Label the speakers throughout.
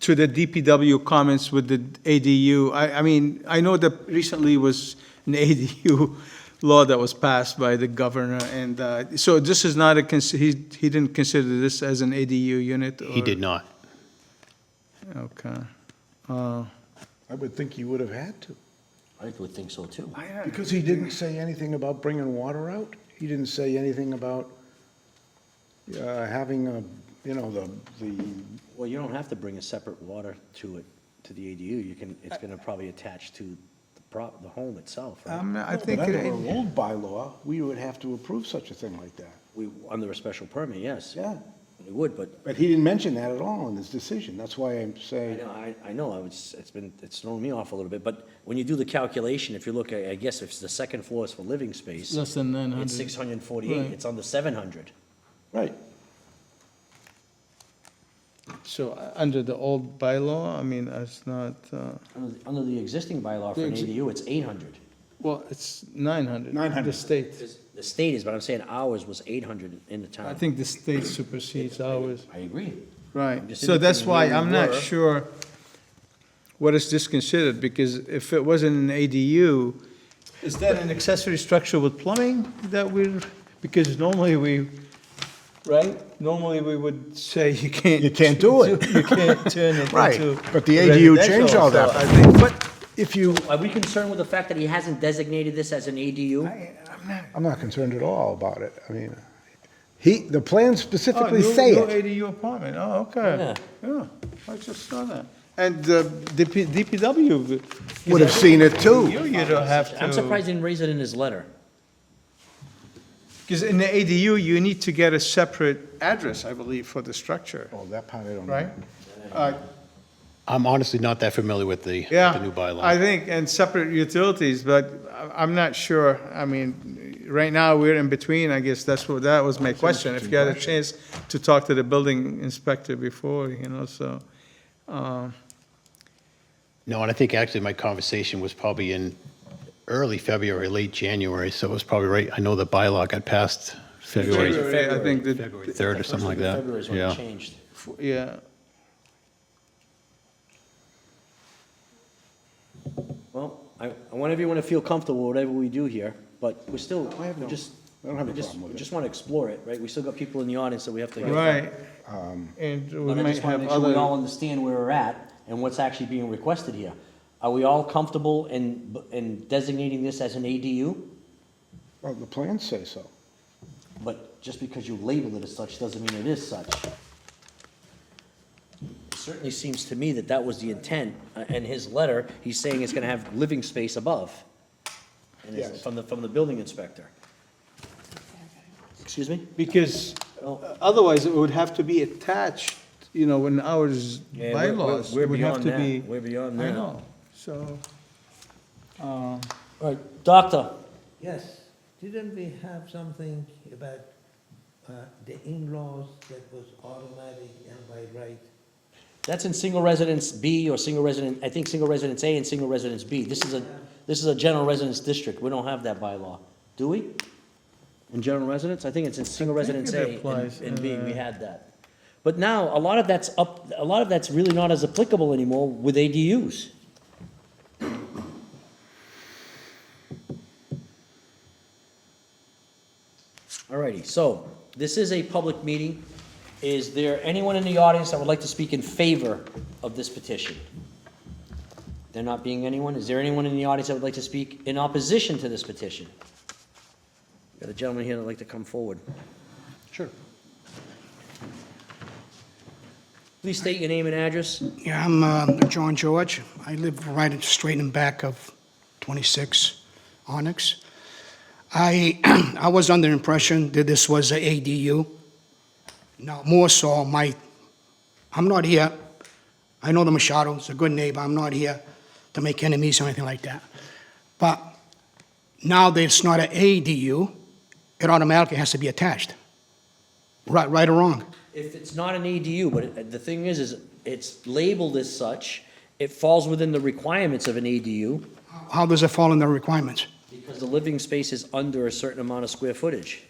Speaker 1: to the DPW comments with the ADU, I, I mean, I know that recently was an ADU law that was passed by the governor, and, uh, so this is not a, cons- he, he didn't consider this as an ADU unit?
Speaker 2: He
Speaker 1: or-
Speaker 2: did not.
Speaker 1: Okay. Uh,
Speaker 3: I would think he would have had to,
Speaker 4: I would think so too.
Speaker 3: because he didn't say anything about bringing water out. He didn't say anything about uh, having a, you know, the, the,
Speaker 4: Well, you don't have to bring a separate water to it, to the ADU. You can, it's gonna probably attach to the prop, the home itself, right?
Speaker 1: I'm not- I
Speaker 3: But
Speaker 1: think,
Speaker 3: under
Speaker 1: it-
Speaker 3: our old bylaw, we would have to approve such a thing like that.
Speaker 4: We, under a special permit, yes.
Speaker 3: Yeah,
Speaker 4: We would, but,
Speaker 3: but he didn't mention that at all in his decision. That's why I'm
Speaker 4: I
Speaker 3: saying,
Speaker 4: know, I, I know, I was, it's been, it's thrown me off a little bit, but when you do the calculation, if you look, I I guess if the second floor is for living space,
Speaker 1: less than nine
Speaker 4: it's
Speaker 1: hundred.
Speaker 4: six hundred and forty-eight,
Speaker 1: Right.
Speaker 4: it's under seven hundred.
Speaker 3: right,
Speaker 1: So, uh, under the old bylaw, I mean, it's not, uh,
Speaker 4: Under, the- under the existing bylaw for
Speaker 1: The
Speaker 4: an
Speaker 1: exi-
Speaker 4: ADU, it's eight hundred.
Speaker 1: well, it's nine hundred.
Speaker 3: 900.
Speaker 1: The state,
Speaker 4: The state is, but I'm saying ours was eight hundred in the town.
Speaker 1: I think the state supersedes ours.
Speaker 4: I agree.
Speaker 1: Right,
Speaker 4: just
Speaker 1: so that's
Speaker 4: indicating
Speaker 1: why
Speaker 4: where we
Speaker 1: I'm not
Speaker 4: were.
Speaker 1: sure what is this considered, because if it wasn't an ADU, is that an accessory structure with plumbing that we're, because normally we, right? Normally we would say you can't.
Speaker 3: You can't do it.
Speaker 1: You can't turn it
Speaker 3: Right,
Speaker 1: into.
Speaker 3: but the ADU changed
Speaker 1: residential,
Speaker 3: all that.
Speaker 1: so I think-
Speaker 3: But if you,
Speaker 4: Are we concerned with the fact that he hasn't designated this as an ADU?
Speaker 1: I- I'm not-
Speaker 3: I'm not concerned at all about it. I mean, he, the plan
Speaker 1: Oh,
Speaker 3: specifically
Speaker 1: new-
Speaker 3: say
Speaker 1: new
Speaker 3: it.
Speaker 1: ADU apartment, oh, okay. Yeah, I just saw that. And uh, DP DPW.
Speaker 3: Would have seen it too.
Speaker 1: You, you don't have to.
Speaker 4: I'm surprised he didn't raise it in his letter.
Speaker 1: Because in the ADU, you need to get a separate address, I believe, for the structure,
Speaker 3: Oh, that part I don't know.
Speaker 1: right? Uh,
Speaker 2: I'm honestly not that familiar with the, with
Speaker 1: Yeah.
Speaker 2: the new
Speaker 1: I
Speaker 2: bylaw.
Speaker 1: think, and separate utilities, but I- I'm not sure. I mean, right now, we're in between, I guess that's what, that was my question. If you had a chance to talk to the building inspector before, you know, so. um,
Speaker 2: No, and I think actually my conversation was probably in early February, late January, so it was probably right, I know the bylaw got passed February
Speaker 1: I think that,
Speaker 2: third or something like that.
Speaker 4: February is when
Speaker 2: Yeah.
Speaker 4: it changed.
Speaker 1: yeah,
Speaker 4: Well, I, I want everyone to feel comfortable, whatever we do here, but we're still,
Speaker 3: I have
Speaker 4: we're
Speaker 3: no-
Speaker 4: just,
Speaker 3: I don't have
Speaker 4: we
Speaker 3: a
Speaker 4: just,
Speaker 3: problem with
Speaker 4: we
Speaker 3: it.
Speaker 4: just want to explore it, right? We still got people in the audience that we have to.
Speaker 1: right. And we
Speaker 4: But I
Speaker 1: might
Speaker 4: just want to
Speaker 1: have
Speaker 4: make sure we all
Speaker 1: other,
Speaker 4: understand where we're at and what's actually being requested here. Are we all comfortable in, in designating this as an ADU?
Speaker 3: Well, the plans say so.
Speaker 4: But just because you label it as such doesn't mean it is such. It Certainly seems to me that that was the intent. Uh, In his letter, he's saying it's gonna have living space above. And it's
Speaker 3: Yes.
Speaker 4: from the, from the building inspector. Excuse me?
Speaker 1: because otherwise it would have to be attached, you know, in ours
Speaker 4: Yeah, we're- we're-
Speaker 1: bylaws.
Speaker 4: we're
Speaker 1: it would have
Speaker 4: beyond
Speaker 1: to
Speaker 4: that.
Speaker 1: be-
Speaker 4: We're beyond
Speaker 1: I
Speaker 4: that.
Speaker 1: know, so.
Speaker 4: All right, doctor,
Speaker 5: Yes, didn't we have something about uh, the in-laws that was automatic and by right?
Speaker 4: that's in single residence B or single resident, I think single residence A and single residence B. This is a, this is a general residence district. We don't have that bylaw, do we? In general residence? I think it's in single
Speaker 1: I think
Speaker 4: residence
Speaker 1: it
Speaker 4: A
Speaker 1: applies,
Speaker 4: and- and B, we
Speaker 1: uh,
Speaker 4: had that. But now, a lot of that's up, a lot of that's really not as applicable anymore with ADUs. Alrighty, so this is a public meeting. Is there anyone in the audience that would like to speak in favor of this petition? There not being anyone, is there anyone in the audience that would like to speak in opposition to this petition? Got a gentleman here that'd like to come forward.
Speaker 2: Sure.
Speaker 4: Please state your name and address.
Speaker 6: Yeah, I'm uh, John George. I live right straight in back of 26 Onyx. I, I was under the impression that this was a ADU. Now, more so, my, I'm not here, I know the Machado's a good neighbor, I'm not here to make enemies or anything like that. But now that it's not an ADU, it automatically has to be attached. Right, right or wrong?
Speaker 4: If it's not an ADU, but it- the thing is, is it's labeled as such, it falls within the requirements of an ADU
Speaker 6: How does it fall in the requirements?
Speaker 4: because the living space is under a certain amount of square footage.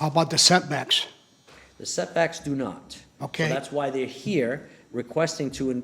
Speaker 6: How about the setbacks?
Speaker 4: The setbacks do not. So
Speaker 6: Okay.
Speaker 4: that's why they're here, requesting to